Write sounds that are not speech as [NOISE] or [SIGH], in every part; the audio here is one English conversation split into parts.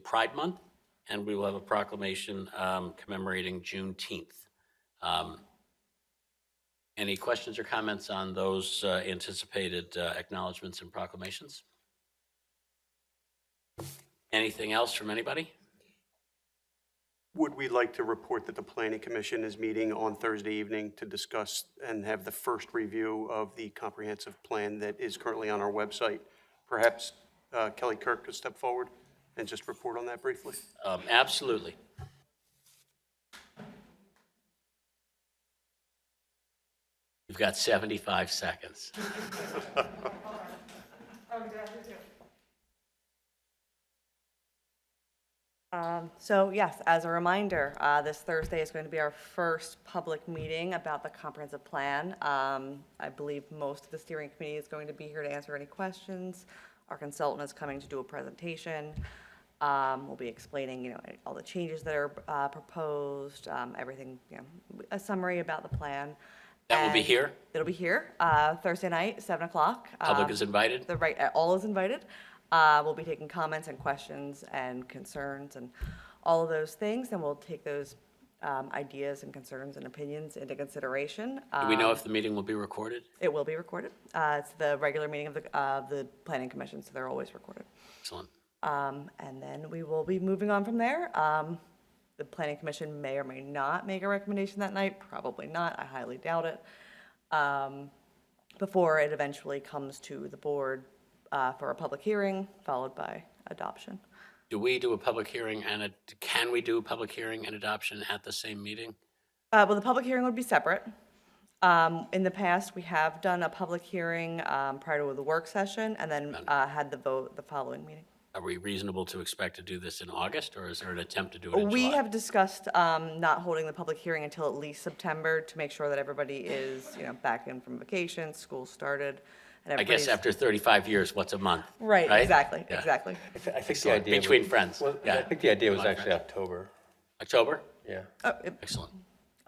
Pride Month, and we will have a proclamation um, commemorating Juneteenth. Um, Any questions or comments on those uh, anticipated uh, acknowledgements and proclamations? Anything else from anybody? Would we like to report that the planning commission is meeting on Thursday evening to discuss and have the first review of the comprehensive plan that is currently on our website? Perhaps uh, Kelly Kirk could step forward and just report on that briefly? Um, Absolutely. You've got 75 seconds. So yes, as a reminder, uh, this Thursday is going to be our first public meeting about the comprehensive plan. Um, I believe most of the steering committee is going to be here to answer any questions. Our consultant is coming to do a presentation. Um, We'll be explaining, you know, all the changes that are uh, proposed, um, everything, you know, a summary about the plan. That will be And here? It'll be here uh, Thursday night, 7 o'clock. Public Um, is invited? the right, all is invited. Uh, We'll be taking comments and questions and concerns and all of those things, and we'll take those um, ideas and concerns and opinions into consideration. Um, Do we know if the meeting will be recorded? It will be recorded. Uh, It's the regular meeting of the, of the planning commission, so they're always recorded. Excellent. Um, And then we will be moving on from there. Um, The planning commission may or may not make a recommendation that night, probably not, I highly doubt it, um, before it eventually comes to the board uh, for a public hearing, followed by adoption. Do we do a public hearing and a, can we do a public hearing and adoption at the same meeting? Uh, Well, the public hearing would be separate. Um, In the past, we have done a public hearing um, prior to the work session and then uh, had the vote the following meeting. Are we reasonable to expect to do this in August, or is there an attempt to do it in We July? have discussed um, not holding the public hearing until at least September to make sure that everybody is, you know, back in from vacation, school started, and I everybody's. guess after 35 years, what's a month? Right, exactly, Yeah. exactly. I th- I think the idea. was- Between friends, Well, I yeah. think the idea was actually October, October? yeah. Oh, it- Excellent.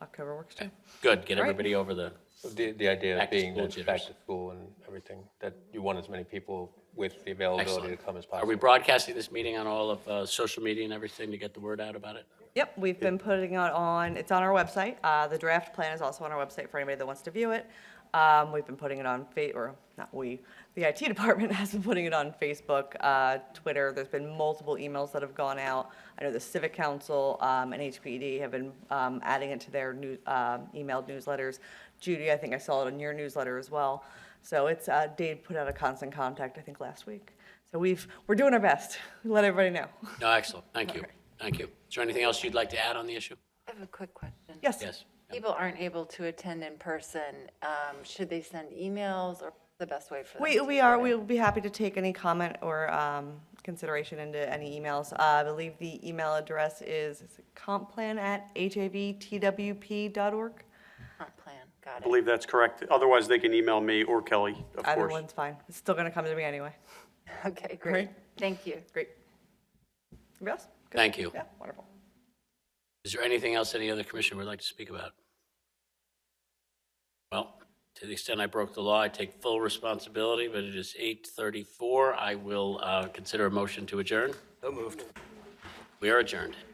October works too. Good, get everybody over the, So The, the idea Back of to being school that back jitters. to school and everything, that you want as many people with the availability to excellent. come as Are we possible. broadcasting this meeting on all of uh, social media and everything to get the word out about it? Yep, we've been putting it on, it's on our website. Uh, The draft plan is also on our website for anybody that wants to view it. Um, We've been putting it on, Fa- or not we, the IT [LAUGHS] department has been putting it on Facebook, uh, Twitter. There's been multiple emails that have gone out. I know the Civic Council um, and HPD have been um, adding it to their new um, emailed newsletters. Judy, I think I saw it in your newsletter as well. So it's, uh, Dave put out a constant contact, I think, last week. So we've, we're doing our best. [LAUGHS] Let everybody know. No, excellent, thank you, thank you. Is there anything else you'd like to add on the issue? I have a quick question. Yes? Yes. People aren't able to attend in person. um, Should they send emails or the best way for them? We, to we do are, it? we will be happy to take any comment or um, consideration into any emails. Uh, I believe the email address is complan@havtwp.org. Comp Plan, got I it. believe that's correct. Otherwise, they can email me or Kelly, of Either course. one's fine. It's still going to come to me anyway. [LAUGHS] Okay, great. Thank you. Great. Everybody else? Good? Thank you. Yeah, wonderful. Is there anything else any other commissioner would like to speak about? Well, to the extent I broke the law, I take full responsibility, but it is 8:34. I will uh, consider a motion to adjourn. So moved. We are adjourned.